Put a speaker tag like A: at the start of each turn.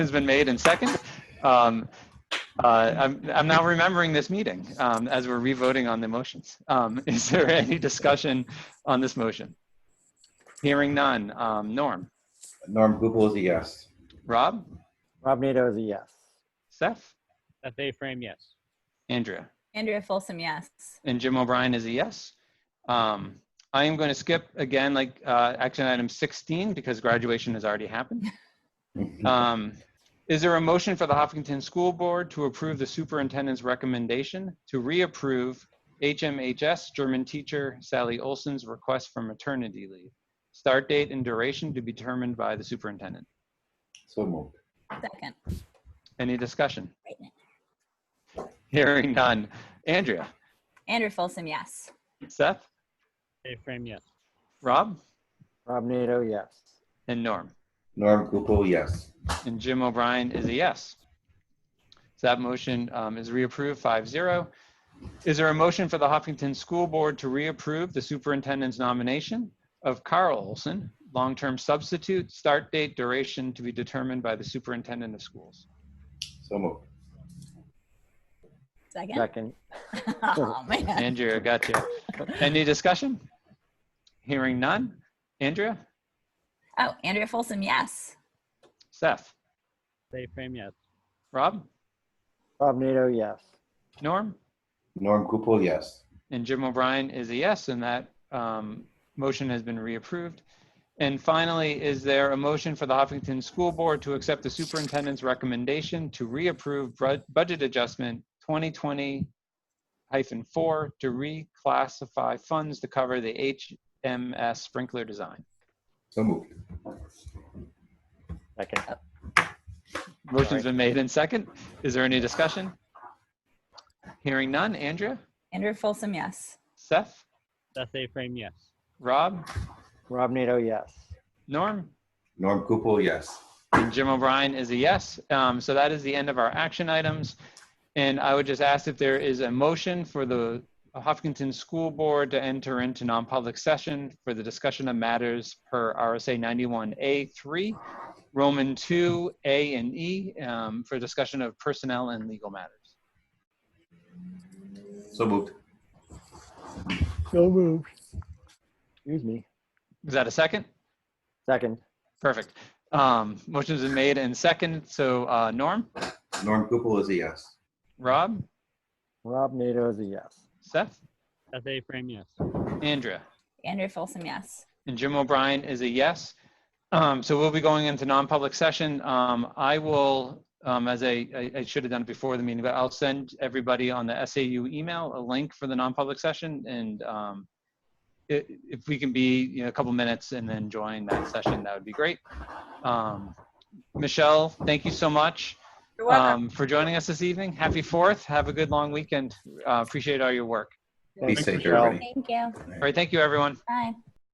A: Motion's been made and second. Um, uh, I'm, I'm now remembering this meeting um, as we're revoting on the motions. Um, is there any discussion on this motion? Hearing none. Um, Norm,
B: Norm Gupel is a yes.
A: Rob,
C: Rob Nato is a yes.
A: Seth,
D: Seth A. Frame, yes.
A: Andrea,
E: Andrea Folsom, yes.
A: and Jim O'Brien is a yes. Um, I am going to skip again, like uh, action item 16, because graduation has already happened. Um, Is there a motion for the Hopkinton School Board to approve the superintendent's recommendation to reapprove HMHS German teacher Sally Olson's request for maternity leave? Start date and duration to be determined by the superintendent.
B: So moved.
E: Second.
A: Any discussion? Hearing none. Andrea,
E: Andrea Folsom, yes.
A: Seth,
D: A. Frame, yes.
A: Rob,
C: Rob Nato, yes.
A: and Norm.
B: Norm Gupel, yes.
A: And Jim O'Brien is a yes. So that motion um, is reapproved 5-0. Is there a motion for the Huffington School Board to reapprove the superintendent's nomination of Carl Olson, long-term substitute, start date, duration to be determined by the superintendent of schools?
B: So moved.
E: Second.
C: Second.
E: Oh, man.
A: Andrea, got you. Any discussion? Hearing none. Andrea?
E: Oh, Andrea Folsom, yes.
A: Seth?
D: Seth A. Frame, yes.
A: Rob?
C: Rob Nato, yes.
A: Norm?
B: Norm Gupel, yes.
A: And Jim O'Brien is a yes, and that um, motion has been reapproved. And finally, is there a motion for the Huffington School Board to accept the superintendent's recommendation to reapprove bru- budget adjustment 2020 hyphen four to reclassify funds to cover the HMS sprinkler design?
B: So moved.
C: Second.
A: Motion's been made and second. Is there any discussion? Hearing none. Andrea,
E: Andrea Folsom, yes.
A: Seth,
D: Seth A. Frame, yes.
A: Rob,
C: Rob Nato, yes.
A: Norm?
B: Norm Gupel, yes.
A: And Jim O'Brien is a yes. Um, so that is the end of our action items. And I would just ask if there is a motion for the Hopkinton School Board to enter into non-public session for the discussion of matters per RSA 91A3, Roman 2, A and E, um, for discussion of personnel and legal matters.
B: So moved.
C: So moved. Excuse me.
A: Is that a second?
C: Second.
A: Perfect. Um, motion's been made and second. So uh, Norm,
B: Norm Gupel is a yes.
A: Rob,
C: Rob Nato is a yes.
A: Seth,
D: Seth A. Frame, yes.
A: Andrea.
E: Andrea Folsom, yes.
A: And Jim O'Brien is a yes. Um, so we'll be going into non-public session. Um, I will, um, as I, I, I should have done it before the meeting, but I'll send everybody on the SAU email a link for the non-public session. And um, i- if we can be you know, a couple minutes and then join that session, that would be great. Um, Michelle, thank you so much
F: You're welcome.
A: um, for joining us this evening. Happy Fourth. Have a good long weekend. Uh, appreciate all your work.
B: Be
C: Thanks,
B: safe,
C: Michelle.
B: everybody.
E: Thank you.
A: All right. Thank you, everyone.
E: Bye.